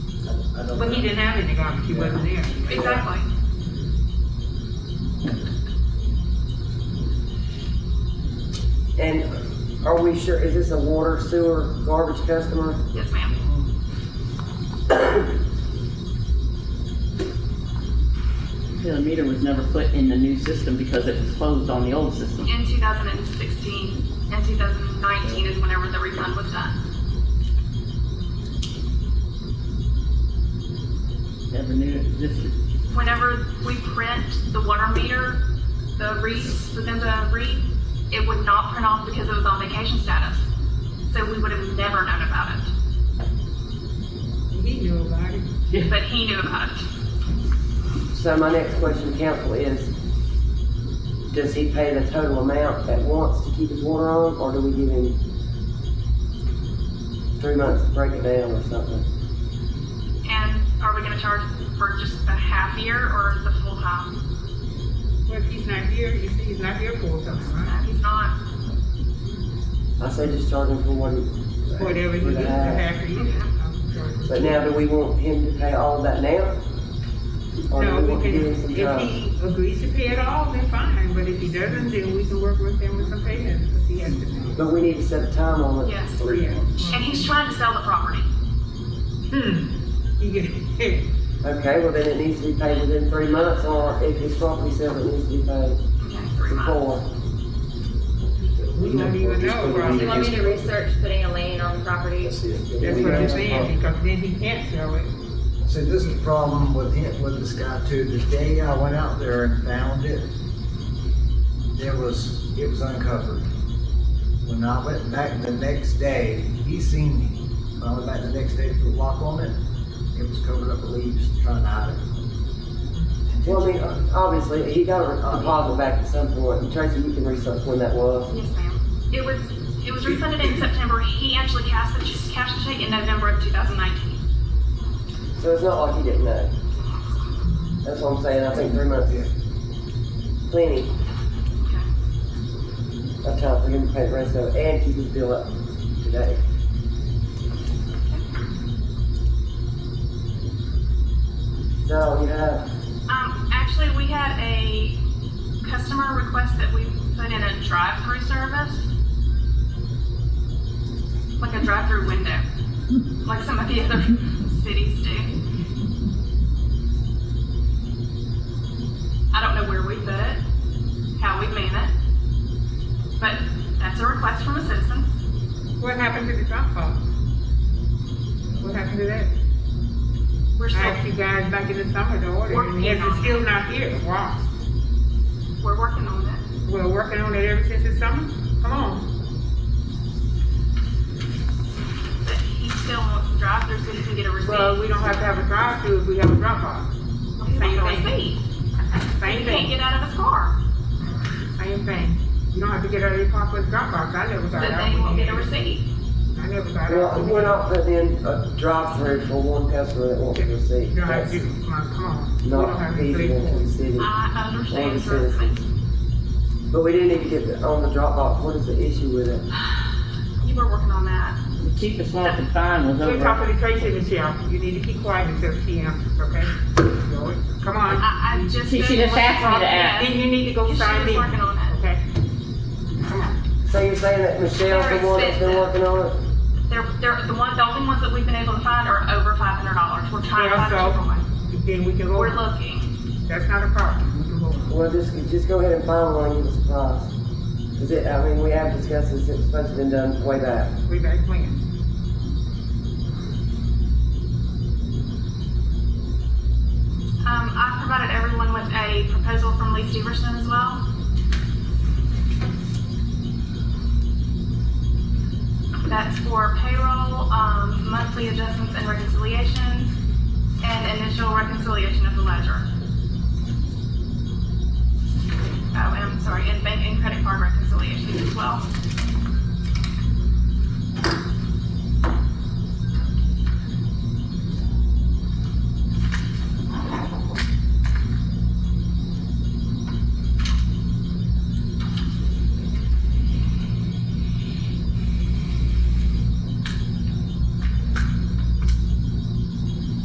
I don't. But he didn't have any garbage, he wasn't there. Exactly. And are we sure, is this a water, sewer, garbage customer? Yes, ma'am. The meter was never put in the new system because it was closed on the old system. In 2016 and 2019 is whenever the refund was done. Never knew it existed. Whenever we print the water meter, the reads for them to read, it would not print off because it was on vacation status. So we would have never known about it, He knew about it. but he knew about it. So my next question, council, is, does he pay the total amount at once to keep his water on, or do we give him three months to break it down or something? And are we going to charge for just the half year or the full time? Well, if he's not here, you see, he's not here full time, right? If He's not. I say just charge him for what he. Whatever he for gets the to half. have to eat. But now, do we want him to pay all of that now? Or do No, we we want to can, give him some if time? he agrees to pay it all, then fine, but if he doesn't, then we can work with him with some payments, because he has to pay. But we need to set a time on it. Yes. Three Yeah. months. And he's trying to sell the property. Hmm, he get, Okay, well then it needs to be paid within three months, or if his property sells, it needs to be paid Okay, three months. before. we don't even know, You want probably. me to research putting a lane on the property? That's it. That's what I'm saying, because then he can't sell it. See, this is the problem with him, with this guy too, the day I went out there and found it, it was, it was uncovered. When I went back the next day, he seen me, when I went back the next day to put a lock on it, it was covered up with leaves, trying to hide it. Well, I mean, obviously, he got a deposit back at some point, and Tracy, you can research when that was. Yes, ma'am. It was, it was refunded in September. He actually cashed the, ch- cashed the check in November of 2019. So it's not like he didn't know. That's what I'm saying, I think three months is plenty Okay. of time for him to pay the rest of it, and keep his bill up today. So, you have, Um, actually, we had a customer request that we put in a drive-through service. Like a drive-through window, like some of the other cities do. I don't know where we put it, how we man it, but that's a request from a citizen. What happened to the drop off? What happened to that? We're I still, asked you guys back in the summer to order, Working and yes, on it's it. still not here, wow. we're working on that. We're working on it ever since the summer, come on. But he still wants the drive-through so he can get a receipt. Well, we don't have to have a drive-through if we have a drop off. He wants Same a thing, receipt. He same can't thing, get out of his car. same thing. You don't have to get out of your car for the drop off, I never got But out. they won't get a receipt. I never got well, we're out. not putting in a uh, drive-through for one customer that wants to receive. You don't have to, come on, come on. We don't Not have to pay feasible for to the it. city. I understand, Well, it's- trust But we didn't even get the, on the Dropbox, what is the issue with it? You were working on that. The cheapest one I could find was We're over, talking to Tracy, Michelle, you need to keep quiet until she answers, okay? Come on. I, I just. She- she didn't just want asked me to talk ask. Then you need to go She sign was in. working on it. Okay. Come on. So you're saying that Michelle's the one that's been working on it? They're, they're, the one, the only ones that we've been able to find are over five hundred dollars. We're trying to Yeah, find a so- different one. Then we can go, We're looking. that's not a problem, we can go. Well, just, just go ahead and find one, and give us a price. Cause it, I mean, we have discussed this, it's supposed to have been done way back. We back when? Um, I provided everyone with a proposal from Lee Steverson as well. That's for payroll, um, monthly adjustments and reconciliations, and initial reconciliation of the ledger. Oh, and I'm sorry, and bank and credit card reconciliations as well.